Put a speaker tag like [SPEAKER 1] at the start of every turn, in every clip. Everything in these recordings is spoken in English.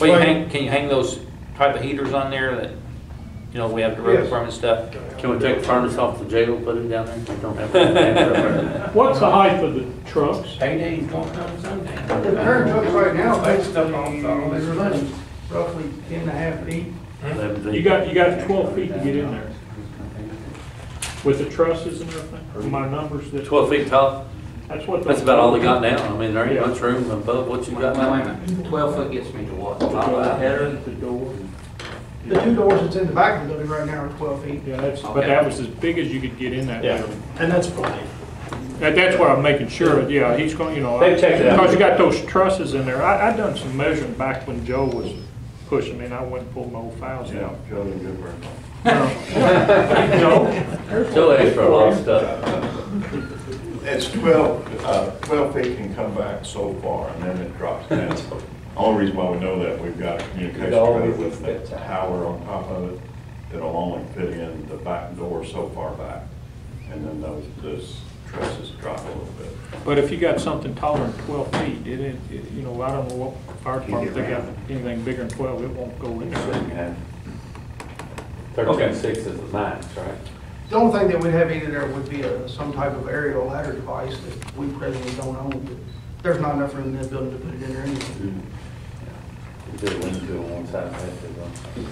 [SPEAKER 1] Well, you
[SPEAKER 2] Well,
[SPEAKER 1] hang, can you hang those type of heaters on there that, you know, we have the road
[SPEAKER 2] Yes.
[SPEAKER 1] department stuff?
[SPEAKER 3] Can we take the furnace off the jail, put it down there? We don't have to.
[SPEAKER 4] What's the height of the trucks?
[SPEAKER 5] Payday's going on Sunday.
[SPEAKER 2] The current trucks right now, they
[SPEAKER 5] Based up on
[SPEAKER 2] uh,
[SPEAKER 5] all this money.
[SPEAKER 2] roughly ten and a half feet.
[SPEAKER 4] You got, you got twelve feet to get in there with the trusses and everything, my numbers, that-
[SPEAKER 3] Twelve feet tall,
[SPEAKER 4] that's what. the-
[SPEAKER 3] that's about all they got now, I mean, there ain't much room above what you
[SPEAKER 5] Well,
[SPEAKER 3] got
[SPEAKER 5] wait a
[SPEAKER 3] now.
[SPEAKER 5] minute, twelve foot gets me to what?
[SPEAKER 4] The
[SPEAKER 3] All right.
[SPEAKER 4] door, The door,
[SPEAKER 2] The two doors that's in the back of the building right now are twelve feet.
[SPEAKER 4] yeah, that's, but
[SPEAKER 5] Okay.
[SPEAKER 4] that was as big as you could get in that
[SPEAKER 1] Yeah.
[SPEAKER 4] building.
[SPEAKER 6] And that's fine.
[SPEAKER 4] That, that's what I'm making sure, of. yeah, he's going, you know.
[SPEAKER 1] They've checked it out.
[SPEAKER 4] Because you got those trusses in there, I, I done some measuring back when Joe was pushing me, and I went and pulled my old files out.
[SPEAKER 3] Still extra a lot of stuff.
[SPEAKER 7] It's 12, uh, 12 feet can come back so far, and then it drops down. Only reason why we know that, we've got a communication code with the tower on top of it, that'll only fit in the back door so far back, and then those, those trusses drop a little bit.
[SPEAKER 4] But if you got something taller than twelve feet, it, it, it- you know, I don't know what fire department, if they got anything bigger than twelve, it won't go in there.
[SPEAKER 7] And
[SPEAKER 3] Thirteen six is the max, right?
[SPEAKER 2] The only thing that we'd have in there would be a, some type of aerial ladder device that we presently don't own, but there's not enough room in that building to put it in there anyway,
[SPEAKER 3] Mm. Do a window on one side, that's it, huh?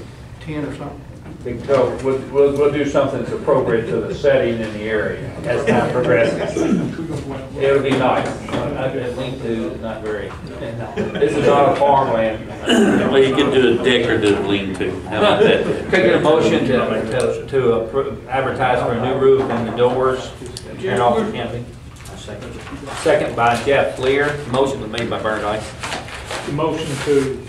[SPEAKER 2] ten or something.
[SPEAKER 1] So we'll, we'll, we'll do something that's appropriate to the setting and the area as time progresses. It'll be nice. I could link to, it's not very, this is not a farmland.
[SPEAKER 3] Well, you could do a decorative lean-to, how about that?
[SPEAKER 1] Could I get a motion to, to- to appro- advertise for a new roof and the doors and off the camping? Second by Jeff Lear, motion was made by Bernard Ice.
[SPEAKER 4] The Motion to,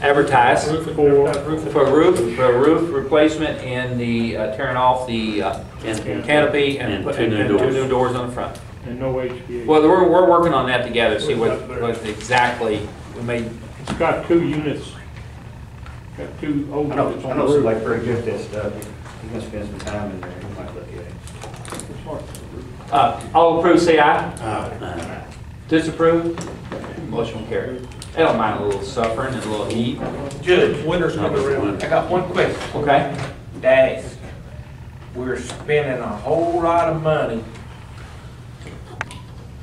[SPEAKER 1] Advertise
[SPEAKER 4] for,
[SPEAKER 1] for a roof, for a roof replacement and the, uh, tearing off the uh,
[SPEAKER 3] And-
[SPEAKER 1] canopy and
[SPEAKER 3] And
[SPEAKER 1] put-
[SPEAKER 3] two
[SPEAKER 1] and
[SPEAKER 3] new
[SPEAKER 1] and two
[SPEAKER 3] doors.
[SPEAKER 1] new doors on the front.
[SPEAKER 4] and no HVAC.
[SPEAKER 1] Well, we're, we're working on that together, see what, what exactly we may,
[SPEAKER 4] It's got two units, got two old
[SPEAKER 5] I
[SPEAKER 4] units
[SPEAKER 5] know, I
[SPEAKER 4] on the
[SPEAKER 5] know
[SPEAKER 4] roof.
[SPEAKER 5] somebody pretty good at this stuff. He's gonna spend some time in there, he might look at it.
[SPEAKER 1] uh, all approve, say aye. Disapprove? Motion carried. I don't mind a little suffering and a little heat,
[SPEAKER 8] Judge, winter's coming
[SPEAKER 3] Winter.
[SPEAKER 8] around. I got one question.
[SPEAKER 1] okay?
[SPEAKER 8] Daddy, we're spending a whole lot of money.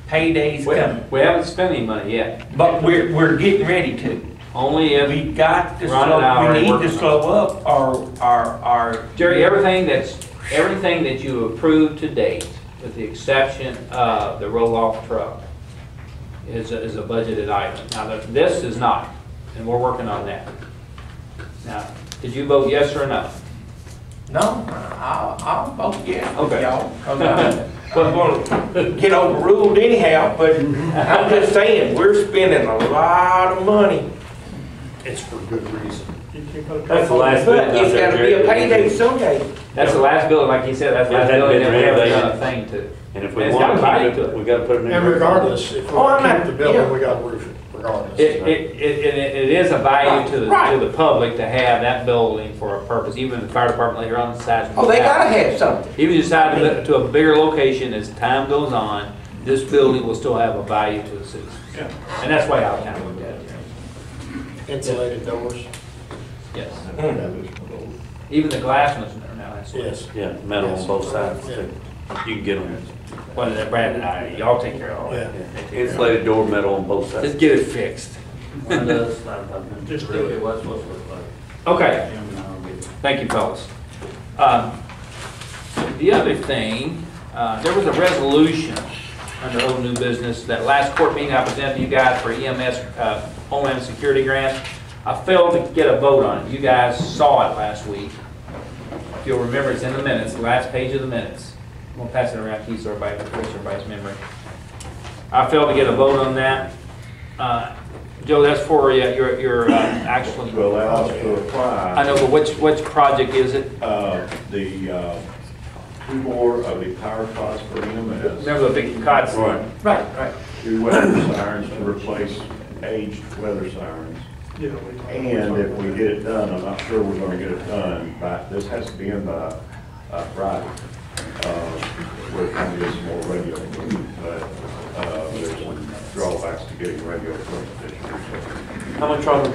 [SPEAKER 8] Payday's
[SPEAKER 1] We
[SPEAKER 8] coming,
[SPEAKER 1] haven't, we haven't spent any money yet,
[SPEAKER 8] but we're, we're getting ready to.
[SPEAKER 1] only if,
[SPEAKER 8] We got to
[SPEAKER 1] Ron and I
[SPEAKER 8] slow,
[SPEAKER 1] are
[SPEAKER 8] we need
[SPEAKER 1] working
[SPEAKER 8] to
[SPEAKER 1] on
[SPEAKER 8] slow up our, our, our.
[SPEAKER 1] Jerry, everything that's, everything that you approved to date, with the exception of the roll-off truck, is, a- is a budgeted item. Now, the- this is not, and we're working on that. Now, did you vote yes or no?
[SPEAKER 8] No, I'll, I'll vote yes with
[SPEAKER 1] Okay.
[SPEAKER 8] y'all, 'cause I'm, I'm gonna get overruled anyhow, but I'm just saying, we're spending a lot of money.
[SPEAKER 6] It's for good reason.
[SPEAKER 3] That's the last bit.
[SPEAKER 8] But it's gotta be a payday someday.
[SPEAKER 1] That's the last building, like you said, that's the
[SPEAKER 3] Yeah,
[SPEAKER 1] last
[SPEAKER 3] that
[SPEAKER 1] building
[SPEAKER 3] been
[SPEAKER 1] that we haven't
[SPEAKER 3] renovated.
[SPEAKER 1] done a thing to.
[SPEAKER 3] And if we
[SPEAKER 1] It's
[SPEAKER 3] want
[SPEAKER 1] got
[SPEAKER 3] to
[SPEAKER 1] body
[SPEAKER 3] keep
[SPEAKER 1] to
[SPEAKER 3] it, we gotta put it in.
[SPEAKER 6] And regardless, if
[SPEAKER 8] Oh, I
[SPEAKER 6] we keep
[SPEAKER 8] mean,
[SPEAKER 6] the building,
[SPEAKER 8] yeah.
[SPEAKER 6] we gotta roof it regardless.
[SPEAKER 1] It, it, it, it- it is a value to the, to
[SPEAKER 8] Right.
[SPEAKER 1] the public to have that building for a purpose, even the fire department later on decides.
[SPEAKER 8] Oh, they gotta have something.
[SPEAKER 1] Even if you decide to move to a bigger location as time goes on, this building will still have a value to the citizens.
[SPEAKER 7] Yeah.
[SPEAKER 1] And that's why I kind of looked at it,
[SPEAKER 6] Insulated doors.
[SPEAKER 1] yes.
[SPEAKER 7] then-
[SPEAKER 1] Even the glass ones are now, that's what,
[SPEAKER 6] Yes.
[SPEAKER 3] Yeah, metal on both sides, too. You can get them.
[SPEAKER 1] well, that Brad and I, y'all take care of all that.
[SPEAKER 6] Yeah.
[SPEAKER 3] Insulated door metal on both sides.
[SPEAKER 1] Just get it fixed.
[SPEAKER 3] Just do it. What's supposed to look like?
[SPEAKER 1] Okay, thank you, fellas. Um, The other thing, uh, there was a resolution under old new business, that last court meeting I presented to you guys for EMS, uh, Homeland Security Grant. I failed to get a vote on it. You guys saw it last week. If you'll remember, it's in the minutes, the last page of the minutes. I'm gonna pass it around, keep so everybody, refresh everybody's memory. I failed to get a vote on that. Uh, Joe, that's for uh, your, your, uh, actually.
[SPEAKER 7] To allow us to
[SPEAKER 1] I
[SPEAKER 7] apply,
[SPEAKER 1] know, but which, which project is it?
[SPEAKER 7] uh, the, uh, two more of the power pods for E EMS.
[SPEAKER 1] Remember the big cots?
[SPEAKER 7] Right.
[SPEAKER 1] Right, right.
[SPEAKER 7] two weather sirens to replace aged weather sirens. And if we get it done, I'm not sure we're gonna get it done, but this has to be in by uh, Friday. Uh, We're gonna get some more radio, but uh, there's some drawbacks to getting radio equipment this year. so
[SPEAKER 3] How much are we